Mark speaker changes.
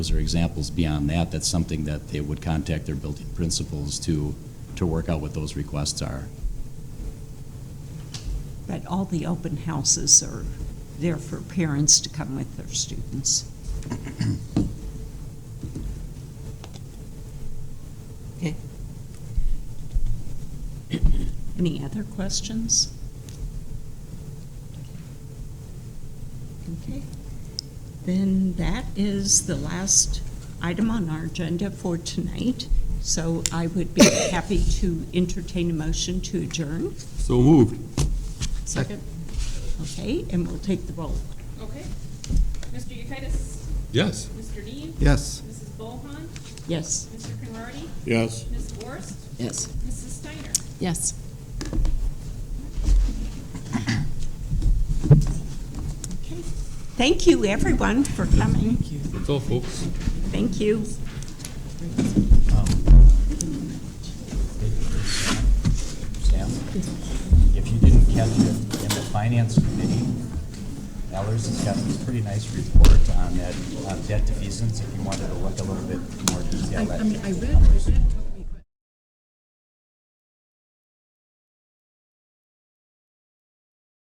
Speaker 1: Those are examples beyond that. That's something that they would contact their building principals to, to work out what those requests are.
Speaker 2: But all the open houses are there for parents to come with their students. Okay. Any other questions? Okay. Then that is the last item on our agenda for tonight. So I would be happy to entertain a motion to adjourn.
Speaker 3: So moved.
Speaker 2: Second. Okay, and we'll take the roll.
Speaker 4: Okay. Mr. Yekitis?
Speaker 3: Yes.
Speaker 4: Mr. Neve?
Speaker 3: Yes.
Speaker 4: Mrs. Bohan?
Speaker 2: Yes.
Speaker 4: Mr. Conrady?
Speaker 3: Yes.
Speaker 4: Ms. Gorst?
Speaker 5: Yes.
Speaker 4: Mrs. Steiner?
Speaker 5: Yes.
Speaker 2: Okay. Thank you, everyone, for coming.
Speaker 3: That's all, folks.
Speaker 2: Thank you.
Speaker 1: Sam, if you didn't catch it, in the finance committee, Ellers has got this pretty nice report on that, on debt defeasance, if you wanted to look a little bit more detail at. I mean, I read, I read